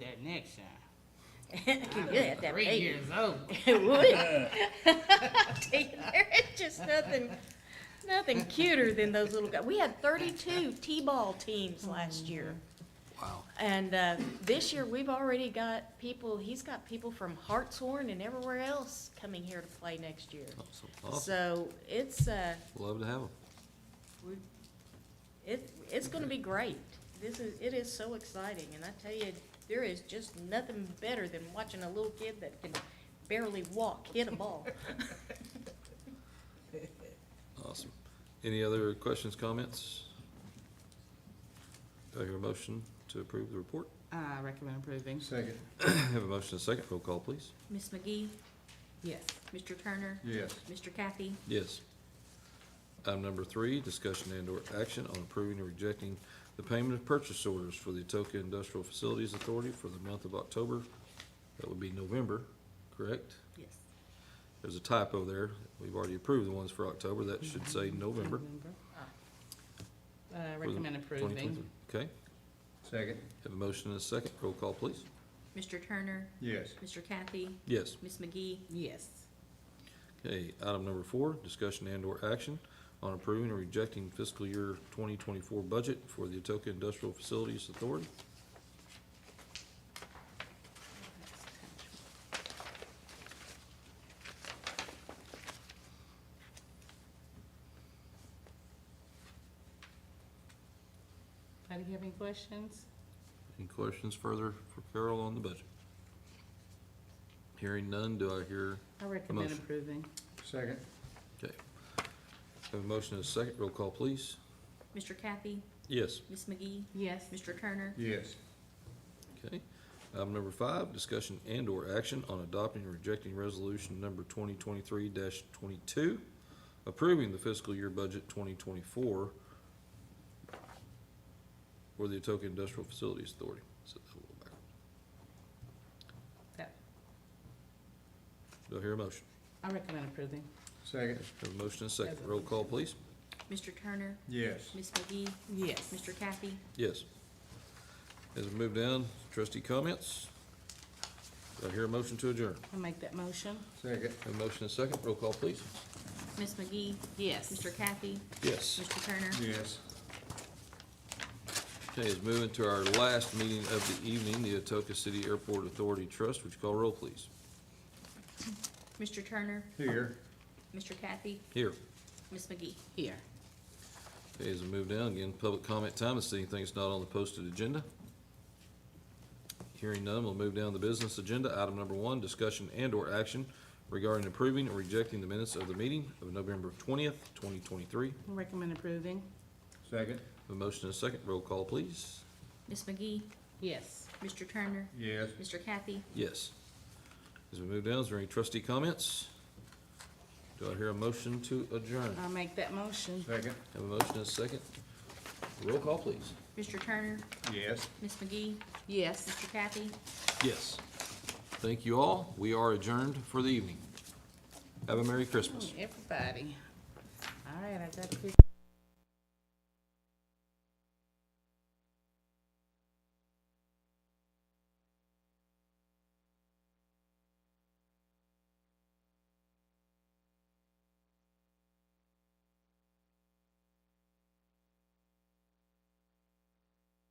that next time. Can you have that Three baby? years old. It would. I tell you, There is just nothing, nothing cuter than those little guys. We had thirty-two T-ball teams last year. Wow. And, uh, this year, we've already got people, he's got people from Hartshorn and everywhere else coming here to play next year. Awesome, Oh, awesome. So it's, uh, Love to have them. we, it, it's gonna be great. This is, it is so exciting, and I tell you, there is just nothing better than watching a little kid that can barely walk hit a ball. Awesome. Any other questions, comments? Do I hear a motion to approve the report? I recommend approving. Second. Have a motion and a second. Roll call, please. Ms. McGee, Yes. Mr. Turner, Yes. Mr. Kathy, Yes. Item number three, discussion and/or action on approving or rejecting the payment of purchase orders for the Atoka Industrial Facilities Authority for the month of October. That would be November, correct? yes, There's a typo there. We've already approved the ones for October. That should say November. I for the Uh, recommend approving. 2023. Okay. Second. Have a motion and a second. Roll call, please. Mr. Turner, Yes. Mr. Kathy, Yes. Ms. McGee, Yes. Okay, item number four, discussion and/or action on approving or rejecting fiscal year 2024 budget for the Atoka Industrial Facilities Authority. Anybody have any questions? Any questions further for Carol on the budget? Hearing none, do I hear, I recommend Motion. approving. Second. okay. Have a motion and a second. Roll call, please. Mr. Kathy, Yes. Ms. McGee, Yes. Mr. Turner, Yes. Okay. Item number five, discussion and/or action on adopting or rejecting resolution number twenty twenty-three twenty-two, approving the fiscal year budget twenty twenty-four for the Atoka Industrial Facilities Authority. Set that a little back. Yep. Do I hear a motion? I recommend approving. Second. Have a motion and a second. Roll call, please. Mr. Turner, Yes. Ms. McGee, Yes. Mr. Kathy, Yes. As we move down, trustee comments? Do I hear a motion to adjourn? I make that motion. Second. Have a motion and a second. Roll call, please. Ms. McGee, Yes. Mr. Kathy, Yes. Mr. Turner. Yes. Okay, let's move into our last meeting of the evening, the Atoka City Airport Authority Trust. Would you call roll, please? Mr. Turner, Here. Mr. Kathy, Here. Ms. McGee. Here. Okay, as we move down, again, public comment time, is there anything that's not on the posted agenda? Hearing none, we'll move down to the business agenda. Item number one, discussion and/or action regarding approving or rejecting the minutes of the meeting of November twentieth, twenty twenty-three. I recommend approving. Second. A motion and a second, roll call, please. Ms. McGee, Yes. Mr. Turner, Yes. Mr. Kathy, Yes. As we move down, is there any trustee comments? Do I hear a motion to adjourn? I make that motion. Second. Have a motion and a second. Roll call, please. Mr. Turner, Yes. Ms. McGee, Yes. Mr. Kathy, Yes. Thank you all. We are adjourned for the evening. Have a Merry Christmas. Everybody. All right, I got to pick